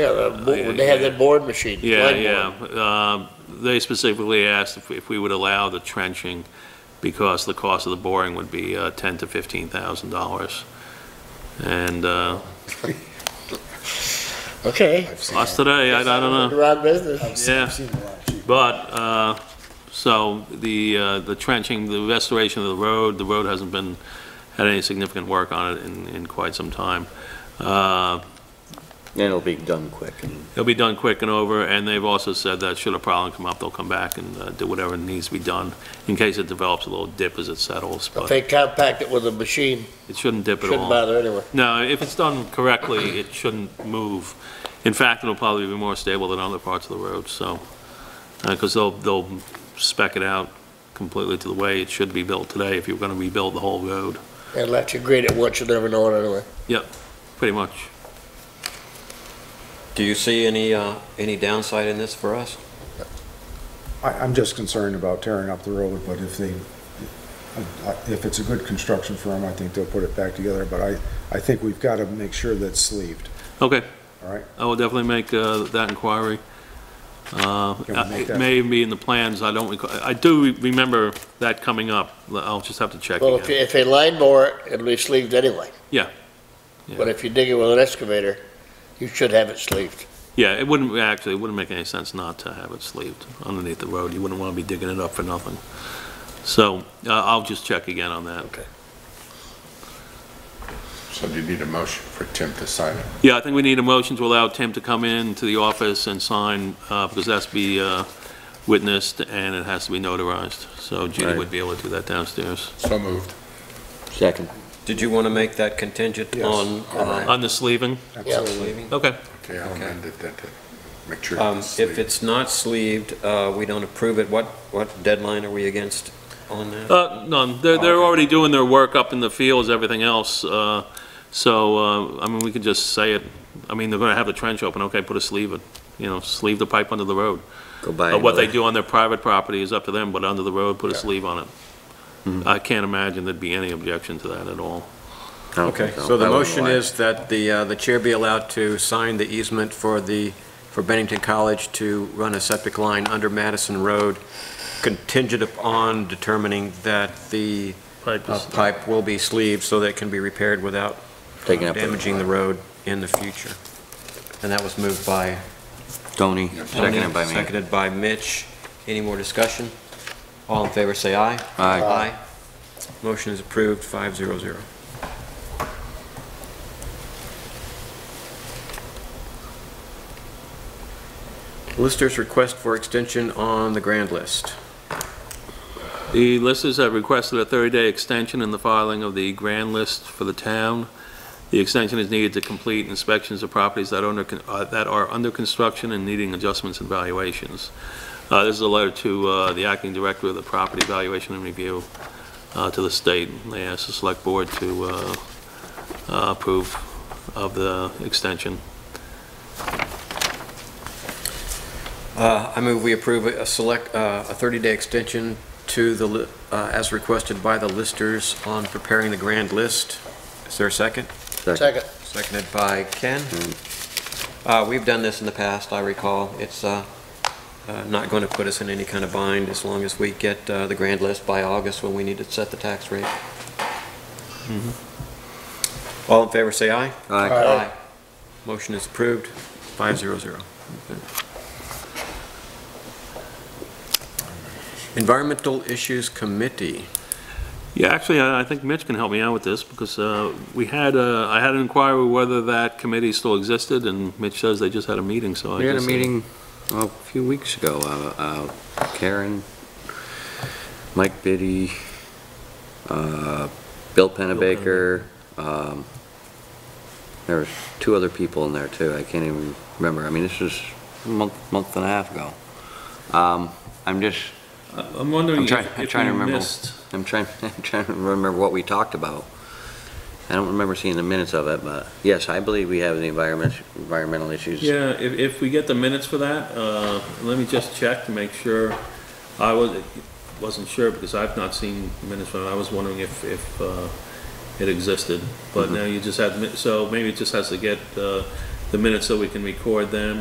Yeah, the board, they have that board machine. Uh, Yeah, line yeah. board. Um, They specifically asked if, if we would allow the trenching because the cost of the boring would be uh, ten to fifteen thousand dollars. And, uh, Okay, us today, I I don't know, you're out of business. yeah. But, uh, so the, uh, the trenching, the restoration of the road, the road hasn't been, had any significant work on it in, in quite some time. Uh, And it'll be done quick and It'll be done quick and over, and they've also said that should a problem come up, they'll come back and uh, do whatever needs to be done in case it develops a little dip as it settles, If but they compact it with a machine, it shouldn't dip at shouldn't all. bother anyway. No, if it's done correctly, it shouldn't move. In fact, it'll probably be more stable than other parts of the road, so, because they'll, they'll spec it out completely to the way it should be built today if you're going to rebuild the whole road, And let you grade it once, you never know it anyway. pretty much. Do you see any, uh, any downside in this for us? I, I'm just concerned about tearing up the road, but if they, I- I- if it's a good construction firm, I think they'll put it back together, but I, I think we've got to make sure that's sleeved, Okay, all right? I will definitely make uh, that inquiry. Uh, Can we make It that- may be in the plans, I don't, recall- I do re- remember that coming up, I'll just have to check Well, if, you- again. if they line bore it, it'll be sleeved anyway. Yeah. Yeah. But if you dig it with an excavator, you should have it sleeved. Yeah, it wouldn't, actually, it wouldn't make any sense not to have it sleeved underneath the road, you wouldn't want to be digging it up for nothing. So uh, I'll just check again on that. So do you need a motion for Tim to sign it? Yeah, I think we need a motion to allow Tim to come in to the office and sign, uh, because that's to be uh, witnessed and it has to be notarized, so Judy Right. would be able to do that downstairs. So moved. second. Did you want to make that contingent Yes. on, uh, On the sleeving, Absolutely. sleeving? okay. Okay, I'll amend it then to make sure. Um, sleeved. If it's not sleeved, uh, we don't approve it, what, what deadline are we against on that? Uh, none. They're, they're Okay. already doing their work up in the fields, everything else, uh, so, uh, I mean, we could just say it. I mean, they're gonna have the trench open, okay, put a sleeve, in, you know, sleeve the pipe under the road. Go by Uh, What they another- do on their private property is up to them, but under the road, put a sleeve on it. I can't imagine there'd be any objection to that at all. I don't Okay, think so the I wouldn't motion lie. is that the, uh, the chair be allowed to sign the easement for the, for Bennington College to run a septic line under Madison Road contingent upon determining that the Pipe uh, is- pipe will be sleeved so that it can be repaired without Taking up the- damaging the road in the future. And that was moved by Tony, seconded by me. Seconded by Mitch. Any more discussion? All in favor, say aye. Aye. Motion is approved, five zero zero. Listers request for extension on the grand list. The listers have requested a 30-day extension in the filing of the grand list for the town. The extension is needed to complete inspections of properties that are under, con- uh, that are under construction and needing adjustments and valuations. Uh, This is a letter to uh, the acting director of the property valuation and review uh, to the state. They asked the select board to uh, uh, approve of the extension. Uh, I move we approve a select, uh, a 30-day extension to the, li- uh, as requested by the listers on preparing the grand list. Is there a second? Second, Seconded by Ken. Uh, We've done this in the past, I recall. It's uh, uh, not going to put us in any kind of bind as long as we get uh, the grand list by August when we need to set the tax rate. All in favor, say aye. Aye. Motion is approved, five zero zero. Environmental Issues Committee. Yeah, actually, I I think Mitch can help me out with this, because uh, we had, uh, I had an inquiry whether that committee still existed, and Mitch says they just had a meeting, so I We had a guess- meeting a few weeks ago, uh, uh, Karen, Mike Biddy, uh, Bill Pennebaker, um, there was two other people in there too, I can't even remember, I mean, this was a month, month and a half ago. Um, I'm just, I- I'm wondering I'm if trying- I'm if trying to we remember. missed, I'm trying, I'm trying to remember what we talked about. I don't remember seeing the minutes of it, but yes, I believe we have the environment, environmental issues. yeah, if, if we get the minutes for that, uh, let me just check to make sure. I was, wasn't sure, because I've not seen minutes from it, I was wondering if, Mm-hmm. if uh, it existed, but now you just had, mi- so maybe it just has to get uh, the minutes so we can record them